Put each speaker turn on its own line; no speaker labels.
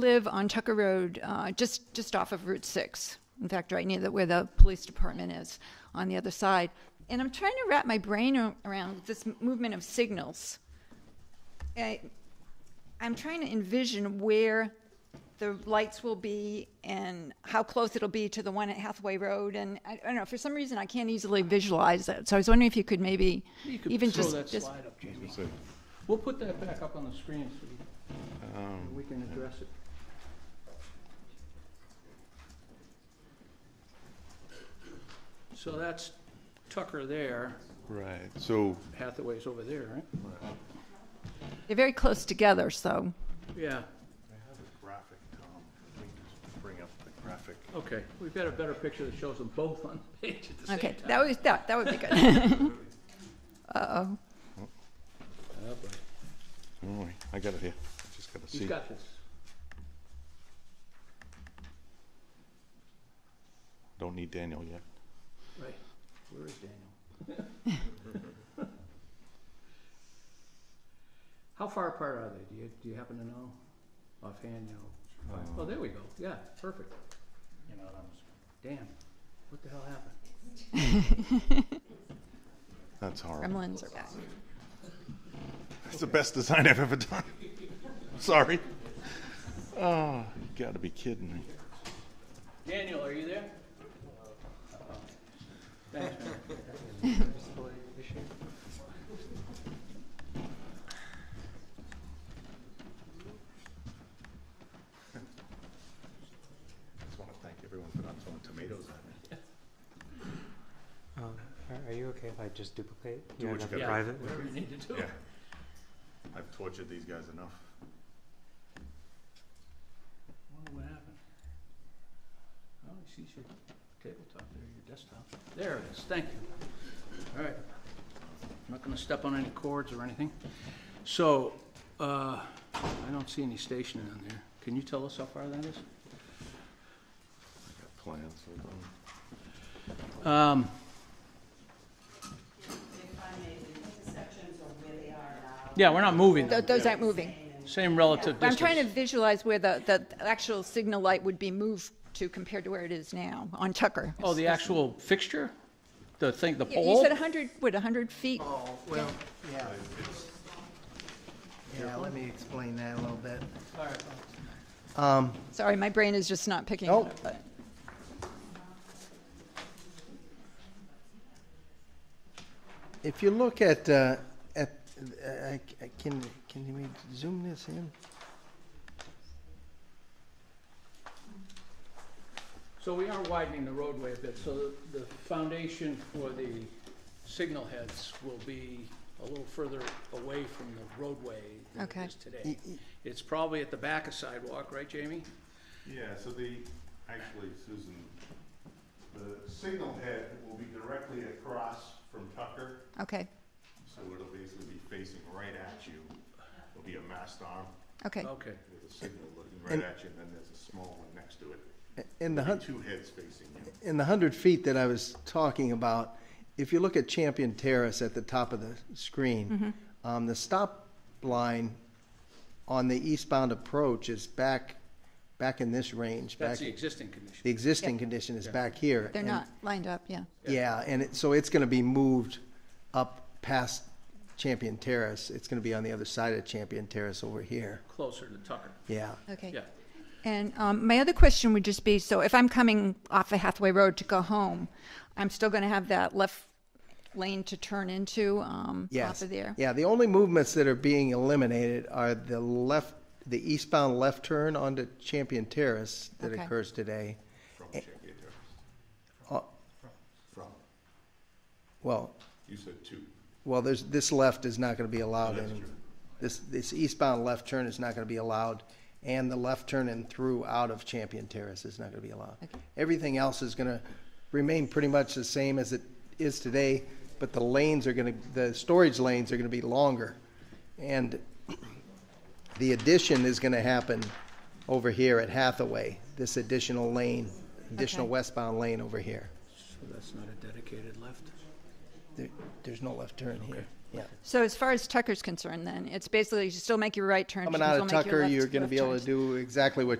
live on Tucker Road, uh, just, just off of Route 6. In fact, right near the, where the police department is, on the other side. And I'm trying to wrap my brain a- around this movement of signals. I, I'm trying to envision where the lights will be and how close it'll be to the one at Hathaway Road. And I, I don't know, for some reason, I can't easily visualize that. So I was wondering if you could maybe
You could
even
throw
just,
that
just
slide up, Jamie. We'll put that back up on the screen so we- we can address it. So that's Tucker there,
Right, so,
Hathaway's over there, right?
They're very close together, so.
Yeah,
I have a graphic, Tom. Let me just bring up the graphic.
okay. We've got a better picture that shows them both on the page at the same time.
Okay, that was, that, that would be good. Uh-oh,
Oh, boy.
don't worry, I got it here, I just gotta see.
He's got this.
Don't need Daniel yet.
Right. Where is Daniel? How far apart are they? Do you, do you happen to know? Offhand, no. Oh, there we go. Yeah, perfect. You know, I was, damn, what the hell happened?
That's horrible.
gremlins are back.
That's the best design I've ever done. Sorry. Oh, you gotta be kidding me.
Daniel, are you there? Thanks, man.
Just want to thank everyone for not throwing tomatoes at me.
Um, are- are you okay if I just duplicate?
Do
have
what you gotta
another
do.
Yeah,
Private?
Whatever you need to do.
Yeah. I've tortured these guys enough.
Wonder what happened? Oh, I see your tabletop there, your desktop. There it is, thank you. All right. I'm not gonna step on any cords or anything. So, uh, I don't see any stationing on there. Can you tell us how far that is?
I got plans, hold on.
Um, yeah, we're not moving
Th-
them.
Those aren't moving.
Same relative
But I'm
distance.
trying to visualize where the, the actual signal light would be moved to compared to where it is now, on Tucker.
Oh, the actual fixture? The thing, the
You- You
pole?
said 100, what, 100 feet?
Oh, well, yeah. Yeah, let me explain that a little bit. Um,
Sorry, my brain is just not picking it
Nope.
up. but-
if you look at, uh, at, I, I can, can you make- zoom this in?
So we are widening the roadway a bit, so the- the foundation for the signal heads will be a little further away from the roadway than
Okay.
it is
E,
today. It's probably at the back of sidewalk, right, Jamie?
Yeah, so the, actually, Susan, the signal head will be directly across from Tucker,
Okay,
so it'll basically be facing right at you. It'll be a mast arm
okay,
Okay,
with a signal looking right at you, and then there's a small one next to it.
In the
Be
hun,
Two heads facing you.
in the hundred feet that I was talking about, if you look at Champion Terrace at the top of the
Mm-hmm.
screen, um, the stop line on the eastbound approach is back, back in this range, back,
that's the
the
existing condition.
existing condition is back here.
they're
and-
not lined up, yeah.
Yeah, and it, so it's gonna be moved up past Champion Terrace. It's gonna be on the other side of Champion Terrace over here.
Closer to Tucker,
Yeah.
Okay.
yeah.
And um, my other question would just be, so if I'm coming off of Hathaway Road to go home, I'm still going to have that left lane to turn into um, off
Yes.
of there?
Yeah, the only movements that are being eliminated are the left, the eastbound left turn onto Champion Terrace that
Okay.
occurs today.
From Champion Terrace.
Uh,
From.
Well,
You said two.
well, there's, this left is not gonna be allowed
That's
in.
true.
This, this eastbound left turn is not gonna be allowed, and the left turn and through out of Champion Terrace is not gonna be allowed.
Okay.
Everything else is gonna remain pretty much the same as it is today, but the lanes are gonna, the storage lanes are gonna be longer. And the addition is gonna happen over here at Hathaway, this additional lane, additional
Okay.
westbound lane over here.
So that's not a dedicated left?
There, there's no left turn here. Yeah.
So as far as Tucker's concerned, then, it's basically you still make your right turn.
Coming out of Tucker, you're gonna be able to
do.
do exactly what